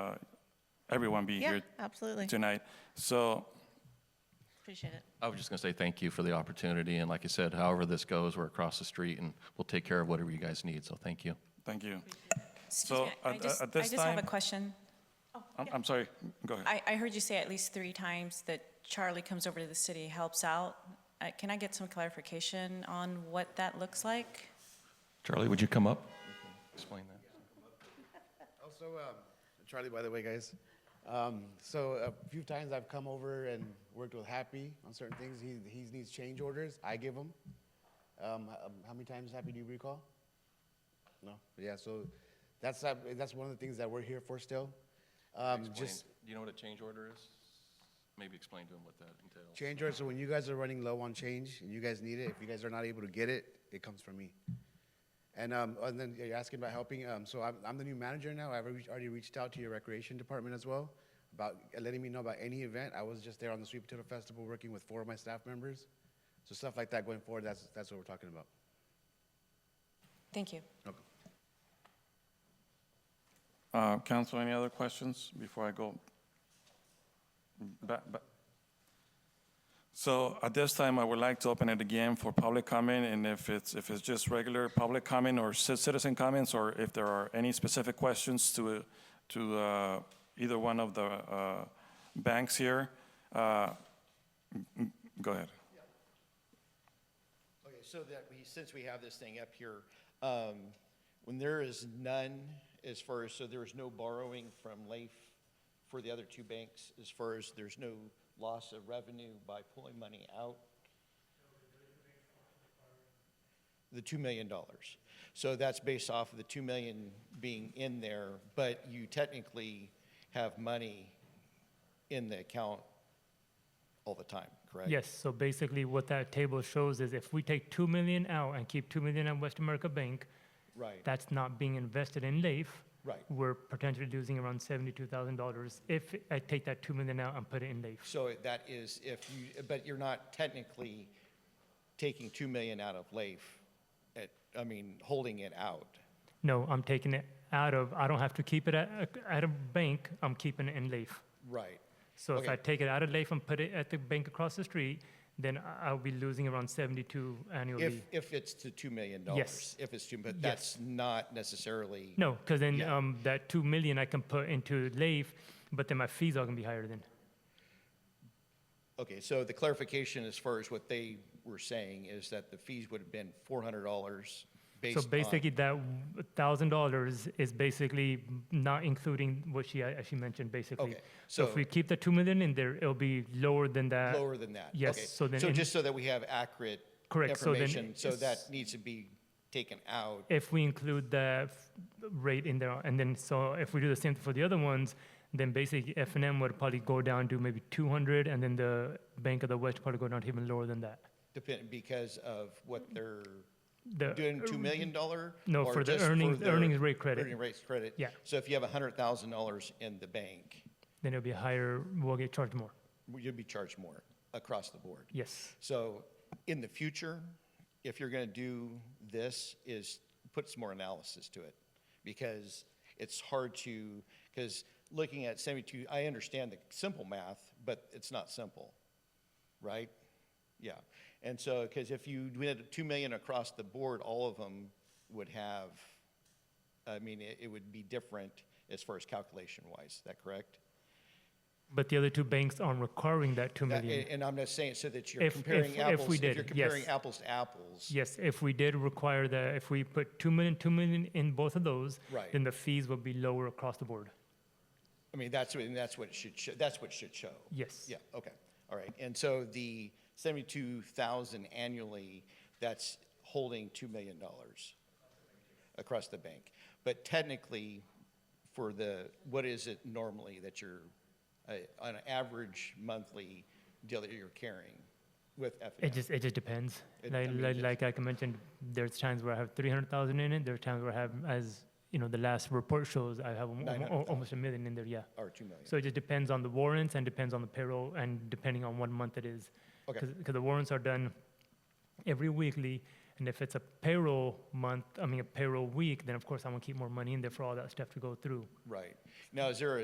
uh, everyone being Yeah, here absolutely. tonight. So Appreciate it. I was just going to say thank you for the opportunity. And like I said, however this goes, we're across the street and we'll take care of whatever you guys need. So thank you. thank you. Excuse So me, I- I at- just- at this I just have a time- question. I'm, I'm sorry. Go ahead. I, I heard you say at least three times that Charlie comes over to the city, helps out. Uh, Can I get some clarification on what that looks like? Charlie, would you come up? Explain that. Also, um, Charlie, by the way, guys. Um, so a few times I've come over and worked with Happy on certain things. He, he needs change orders. I give them. Um, h- um, how many times, Happy, do you recall? No. Yeah. So that's uh, that's one of the things that we're here for still. Um, just Explain. Do you know what a change order is? Maybe explain to him what that entails. change orders. So when you guys are running low on change and you guys need it, if you guys are not able to get it, it comes from me. And, um, and then you're asking about helping. Um, so I'm, I'm the new manager now. I've already- already reached out to your recreation department as well about letting me know about any event. I was just there on the Sweet Potato Festival working with four of my staff members. So stuff like that going forward, that's, that's what we're talking about. Thank you. Okay. Uh, council, any other questions before I go? Ba- ba- So at this time, I would like to open it again for public comment, and if it's, if it's just regular public comment or ci- citizen comments, or if there are any specific questions to, to uh, either one of the uh, banks here, uh, m- m- go ahead. Okay, so that we, since we have this thing up here, um, when there is none as far as, so there is no borrowing from LAIF for the other two banks, as far as there's no loss of revenue by pulling money out? The two million dollars. So that's based off of the two million being in there, but you technically have money in the account all the time, correct? Yes, so basically what that table shows is if we take 2 million out and keep 2 million at West America Bank, Right. that's not being invested in LAIF. Right. We're potentially losing around $72,000 if I take that 2 million out and put it in LAIF. So that is if you, but you're not technically taking 2 million out of LAIF, at, I mean, holding it out. No, I'm taking it out of, I don't have to keep it at, at a bank, I'm keeping it in LAIF. Right. So if Okay. I take it out of LAIF and put it at the bank across the street, then I- I'll be losing around 72 annually. If, if it's to $2 million. Yes. If it's 2, but Yes. that's not necessarily. No, because then Yeah. um, that 2 million I can put into LAIF, but then my fees are going to be higher then. Okay, so the clarification as far as what they were saying is that the fees would have been $400 based So on. basically, that thousand dollars is basically not including what she a- actually mentioned, basically. Okay, So if so- we keep the two million in there, it'll be lower than that. Lower than that. yes, Okay. so then So in- just so that we have accurate. Correct, so then Information, so it's- that needs to be taken out. If we include the f- rate in there, and then, so if we do the same for the other ones, then basically F and M would probably go down to maybe two hundred, and then the Bank of the West probably go down to even lower than that. Depend, because of what Mm-hmm. they're The- doing two million dollar? No, or for the just earnings- their earnings rate credit. Earning rates credit? Yeah. So if you have a hundred thousand dollars in the bank, Then it'll be higher, we'll get charged more, you'll be charged more across the board. yes. So in the future, if you're gonna do this, is put some more analysis to it. Because it's hard to, because looking at seventy-two, I understand the simple math, but it's not simple, right? Yeah. And so, because if you did two million across the board, all of them would have, I mean, it, it would be different as far as calculation wise, is that correct? But the other two banks aren't requiring that two That- million. And and I'm not saying so that you're If- if- comparing if apples. we did, If you're yes. comparing apples to apples. Yes, if we did require the, if we put 2 million, 2 million in both of those, Right. then the fees would be lower across the board. I mean, that's what, and that's what it should, show- that's what it should show. Yes. Yeah, okay, all right. And so the seventy-two thousand annually, that's holding two million dollars across the bank. But technically, for the, what is it normally that you're, uh, on an average monthly deal that you're carrying with F It just, it just depends. It- I Like, mean, like, it's- like I mentioned, there's times where I have 300,000 in it, there are times where I have, as, you know, the last report shows, I have almo- almo- 900,000. almost a million in there, yeah. Or two million? So it just depends on the warrants and depends on the payroll and depending on what month it is. Okay. Because the warrants are done every weekly, and if it's a payroll month, I mean, a payroll week, then of course I want to keep more money in there for all that stuff to go through. Right. Now, is there a